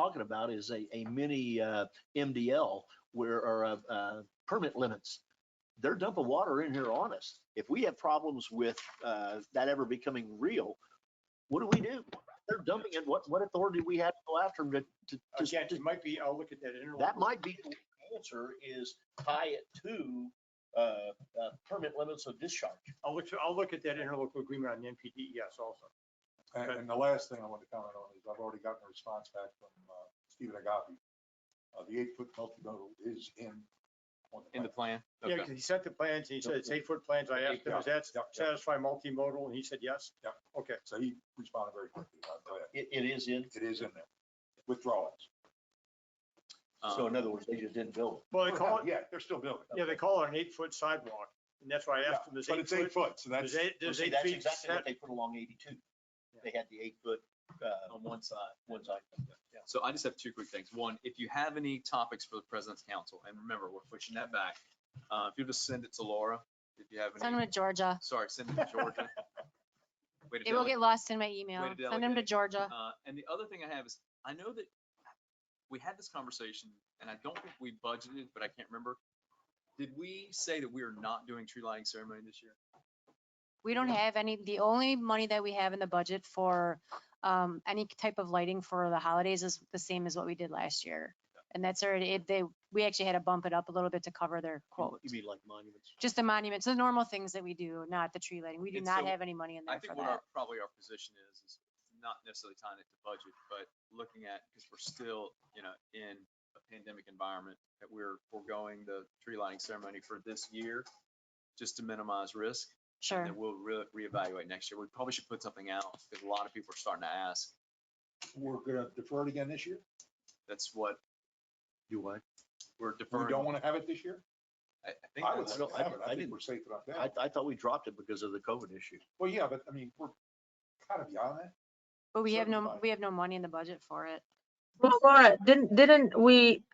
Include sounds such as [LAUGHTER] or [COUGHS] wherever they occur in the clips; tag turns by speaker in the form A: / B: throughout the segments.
A: talking about is a, a mini uh, MDL where, or uh, uh, permit limits. They're dumping water in here on us. If we have problems with uh, that ever becoming real, what do we do? They're dumping it. What, what authority do we have to go after them to- to, to,
B: Again, it might be, I'll look at that interlocal.
A: that might be the answer is tie it to uh, uh, permit limits of discharge.
B: I'll look, I'll look at that interlocal agreement on the NPDES E also.
C: And, and the last thing I want to comment on is I've already gotten a response back from uh, Stephen Agapi. Uh, The eight-foot multimodal is in. on
D: in the
C: plan.
D: plan?
B: Yeah,
D: Okay.
B: because he sent the plans and he said it's eight-foot plans. I asked him, does that
C: Yeah, yeah.
B: satisfy multimodal? And he said, yes.
C: Yeah.
B: Okay.
C: So he responded very quickly. I'm glad.
A: It, it is in,
C: It is in there. Withdrawals.
A: so in
D: Um,
A: other words, they just didn't build
B: Well, they call it,
C: Yeah, they're still building.
B: yeah, they call it an eight-foot sidewalk. And that's why I
C: Yeah,
B: asked him, does
C: But
B: eight
C: it's eight
B: foot,
C: foot, so that's.
B: does eight,
A: it.
B: does
A: See,
B: eight
A: that's
B: feet,
A: exactly what
B: sat-
A: they put along eighty-two. They had the eight foot, uh,
D: On one side.
A: one side.
D: So I just have two quick things. One, if you have any topics for the president's council, and remember, we're pushing that back. Uh, if you just send it to Laura, if you have
E: Send
D: any,
E: them to Georgia.
D: sorry, send it to Georgia.
E: [LAUGHS]
D: Way to
E: It will
D: delegate.
E: get lost in my email. Send them to
D: delegate.
E: Georgia.
D: Uh, and the other thing I have is, I know that we had this conversation, and I don't think we budgeted, but I can't remember. Did we say that we are not doing tree lighting ceremony this year?
E: We don't have any, the only money that we have in the budget for um, any type of lighting for the holidays is the same as what we did last year. And that's already, it- they, we actually had to bump it up a little bit to cover their quote.
A: You mean like monuments?
E: Just the monuments, the normal things that we do, not the tree lighting. We do
D: And
E: not
D: so
E: have any money in
D: I
E: there for
D: think what
E: that.
D: our, probably our position is, is not necessarily tying it to budget, but looking at, because we're still, you know, in a pandemic environment, that we're foregoing the tree lighting ceremony for this year, just to minimize risk.
E: Sure.
D: And then we'll re- reevaluate next year. We probably should put something out, because a lot of people are starting to ask.
C: We're gonna defer it again this year?
D: That's what
A: Do what?
D: we're
C: We
D: deferring.
C: don't want to have it this year?
D: I I think
C: I would
D: that's-
A: I don't-
C: still have it.
A: I
C: I
A: didn't-
C: think we're safe about
A: I,
C: that.
A: I thought we dropped it because of the COVID issue.
C: Well, yeah, but I mean, we're kind of beyond that.
E: But we have no,
C: certified.
E: we have no money in the budget for it.
F: Well, Laura, didn't, didn't we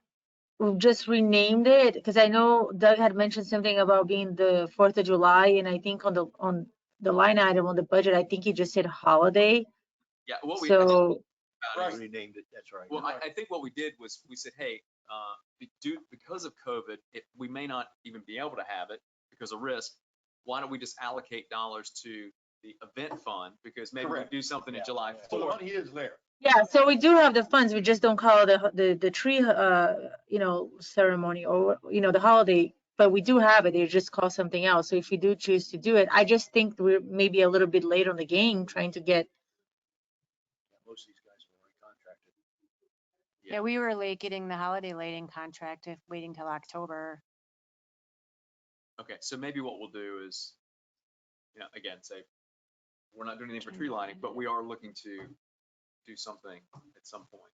F: just renamed it? Because I know Doug had mentioned something about being the Fourth of July, and I think on the, on the line item on the budget, I think you just said holiday.
D: Yeah, what we. I think
F: So,
D: about it
C: Right.
D: is-
A: We named it, that's right.
D: Well, I, I think what we did was, we said, hey, uh, be- due, because of COVID, it, we may not even be able to have it because of risk. Why don't we just allocate dollars to the event fund? Because maybe we
C: Correct.
D: do something in
A: Yeah,
D: July
C: So the
D: fourth.
C: money is there.
F: yeah, so we do have the funds, we just don't call the, the, the tree, uh, you know, ceremony or, you know, the holiday. But we do have it, they just call something else. So if you do choose to do it, I just think we're maybe a little bit late on the game trying to get
A: Most of these guys are already contracted.
D: Yeah.
E: Yeah, we were late getting the holiday lighting contract, if waiting till October.
D: Okay, so maybe what we'll do is, you know, again, say, we're not doing anything for tree lining, but we are looking to do something at some point.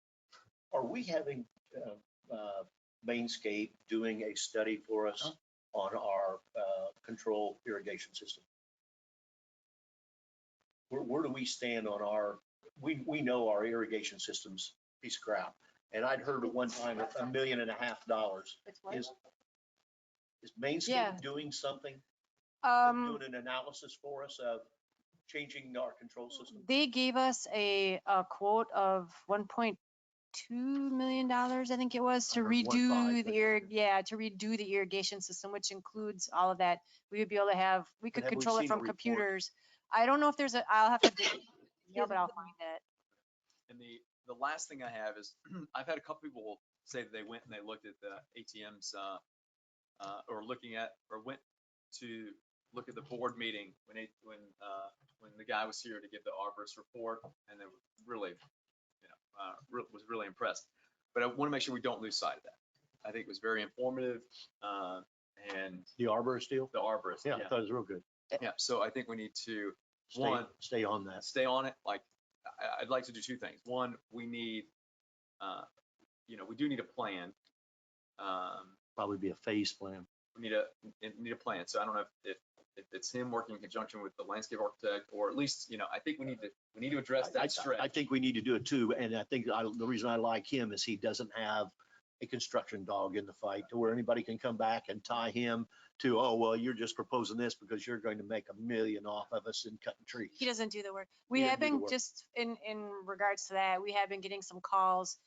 A: Are we having uh, uh, Mainscape doing a study for us on our uh, control irrigation system? Where, where do we stand on our, we, we know our irrigation system's piece of crap. And I'd heard at one time a million and a half dollars. Is, is
E: Yeah.
A: Mainscape doing something,
E: Um.
A: doing an analysis for us of changing our control system?
E: They gave us a, a quote of one point two million dollars, I think it was, to
A: I heard one five,
E: redo
A: but-
E: the ir, yeah, to redo the irrigation system, which includes all of that. We would be able to have, we could
A: have we
E: control
A: seen
E: it
A: a
E: from
A: report?
E: computers. I don't know if there's a, I'll have to,
A: [COUGHS]
E: dig it
F: Here's
E: up, but I'll
F: the-
E: find it.
D: And the, the last thing I have is, [CLEARS THROAT] I've had a couple people say that they went and they looked at the ATMs, uh, uh, or looking at, or went to look at the board meeting when it, when, uh, when the guy was here to give the arborist report, and they were really, you know, uh, re- was really impressed. But I want to make sure we don't lose sight of that. I think it was very informative, uh, and
A: The arborist deal?
D: the arborist,
A: Yeah,
D: yeah,
A: I thought it was real good.
D: yeah. So I think we need to,
A: Stay-
D: One.
A: Stay on that.
D: stay on it, like, I, I'd like to do two things. One, we need, uh, you know, we do need a plan. Um,
A: Probably be a phase plan.
D: we need a, n- need a plan. So I don't know if, if, if it's him working in conjunction with the landscape architect, or at least, you know, I think we need to, we need to address
A: I- I-
D: that stretch.
A: I think we need to do it too, and I think I, the reason I like him is he doesn't have a construction dog in the fight to where anybody can come back and tie him to, oh, well, you're just proposing this because you're going to make a million off of us in cutting trees.
E: He doesn't do the work. We
A: Yeah,
E: have
A: do the
E: been
A: work.
E: just in, in regards to that, we have been getting some calls